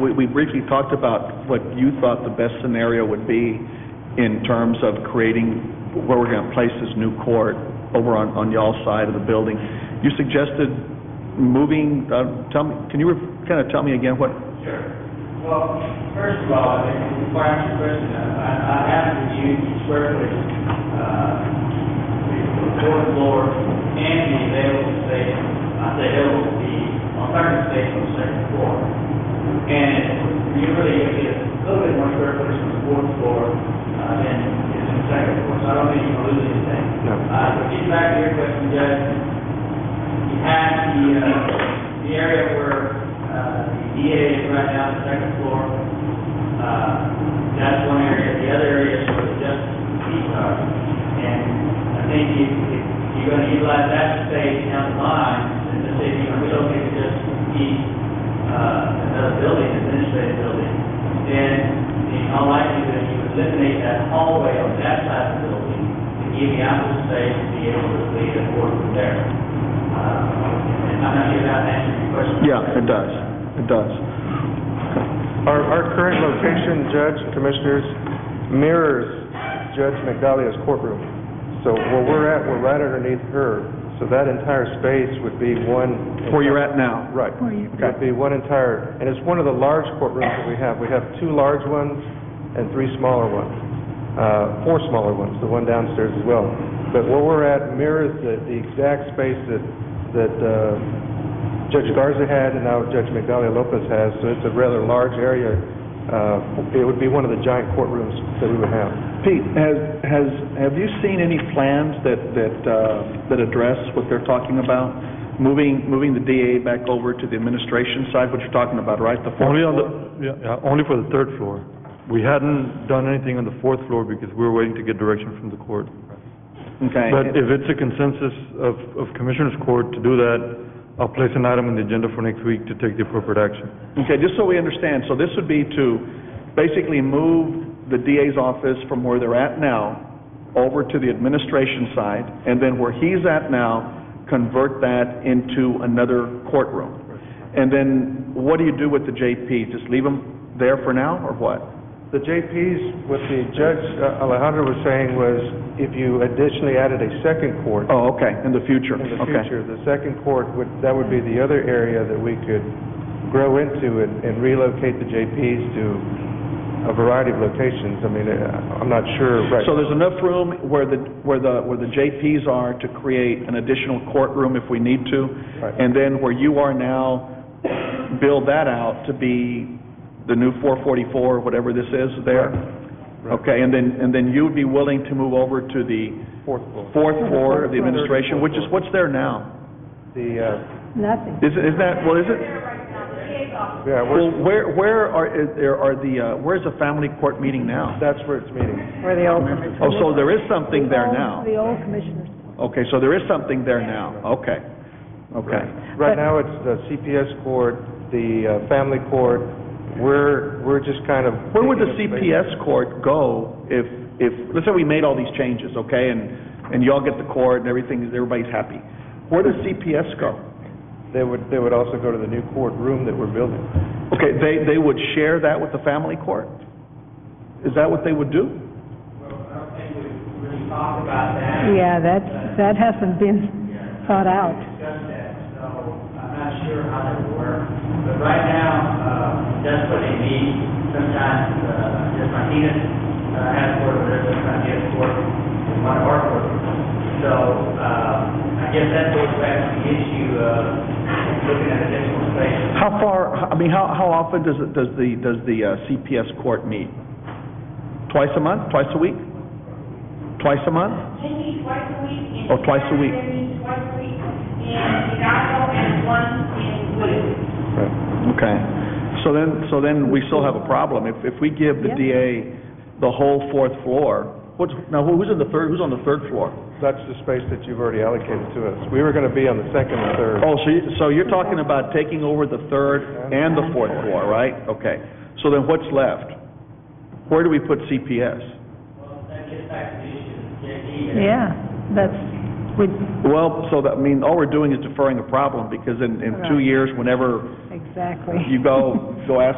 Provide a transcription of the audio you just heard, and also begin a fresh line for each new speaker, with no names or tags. we, we briefly talked about what you thought the best scenario would be in terms of creating where we're going to place this new court over on, on y'all's side of the building. You suggested moving, uh, tell me, can you kind of tell me again what,
Sure. Well, first of all, I think the fire suppression, I, I have to use the square footage, uh, the fourth floor and the available space, uh, the available, the alternative space on the second floor. And you really get a little bit more square footage on the fourth floor, uh, than is on the second floor, so I don't think you're losing anything.
No.
Uh, but getting back to your question, Judge, you have the, uh, the area where, uh, the DA is right now, the second floor. Uh, that's one area, the other area is where the justice seats are. And I think if, if you're gonna utilize that space down the line, and the city, you know, we don't need to just heat, uh, another building, administrative building, then in all likelihood, you eliminate that hallway on that side of the building, to give the office space to be able to lead a board from there. Uh, I'm not sure if that answers your question.
yeah, it does, it does.
Our, our current location, Judge, Commissioners, mirrors Judge McDalia's courtroom. So where we're at, we're right underneath her, so that entire space would be one...
Where you're at now?
Right. Would be one entire, and it's one of the large courtrooms that we have. We have two large ones and three smaller ones, Uh, four smaller ones, the one downstairs as well. But where we're at mirrors the the exact space that that uh, Judge Garza had and now Judge Migdalia Lopez has, so it's a rather large area. Uh, It would be one of the giant courtrooms that we would have.
Pete, has, has, have you seen any plans that, that, uh, that address what they're talking about? Moving, moving the DA back over to the administration side, what you're talking about, right? The fourth
Only on
floor?
the, yeah, yeah, only for the third floor. We hadn't done anything on the fourth floor because we were waiting to get direction from the court.
Okay.
But if it's a consensus of, of Commissioners Court to do that, I'll place an item on the agenda for next week to take the appropriate action.
Okay, just so we understand, so this would be to basically move the DA's office from where they're at now over to the administration side, and then where he's at now, convert that into another courtroom. And then what do you do with the JP? Just leave them there for now, or what?
The JPs, what the Judge uh, Alejandro was saying was, if you additionally added a second court,
Oh, okay, in the future,
in the
okay.
future, the second court, would that would be the other area that we could grow into and and relocate the JPs to a variety of locations. I mean, uh, I'm not sure, right?
So there's enough room where the, where the, where the JPs are to create an additional courtroom if we need to?
Right.
And then where you are now, build that out to be the new 444, whatever this is there?
Right.
Okay, and then, and then you'd be willing to move over to the
Fourth floor.
fourth floor of the
Third,
administration,
fourth
which is,
floor.
what's there now?
The, uh,
Nothing.
Is, it- is that, well, is it?
yeah,
Well, where,
we're,
where are, is there are the, uh, where's the family court meeting now?
that's where it's meeting.
Where the old commissioners.
Oh, so there is something there
The
now?
old- The old commissioners.
Okay, so there is something there now, okay, okay.
Right
But-
now, it's the CPS court, the uh, family court. We're, we're just kind of...
Where would the
taking a space-
CPS court go if, if, let's say we made all these changes, okay, and, and y'all get the court and everything, everybody's happy. Where does CPS go?
They would, they would also go to the new courtroom that we're building.
Okay, they, they would share that with the family court? Is that what they would do?
Well, I don't think we really talked about that.
Yeah, that, that hasn't been thought out.
discussed that, so I'm not sure how that would work. But right now, uh, that's what they need. Sometimes, uh, just Martinez, uh, has court, but there's a idea of court, in one of our court. So, uh, I guess that goes back to the issue of looking at additional space.
How far, I mean, how, how often does it, does the, does the uh, CPS court meet? Twice a month, twice a week? Twice a month?
They meet twice a week in.
Oh, twice a week.
They meet twice a week in Hidalgo and once in Woodwood.
Okay. So then, so then we still have a problem. If, if we give the
Yeah.
DA the whole fourth floor, what's, now who's in the third, who's on the third floor?
That's the space that you've already allocated to us. We were going to be on the second and third.
Oh, so, you- so you're talking about taking over the third and the fourth floor, right? Okay. So then what's left? Where do we put CPS?
Well, that gets back to the issue of the JD.
Yeah, that's, we,
Well, so that, I mean, all we're doing is deferring a problem, because in, in two
Right.
years, whenever
exactly.
you go, go ask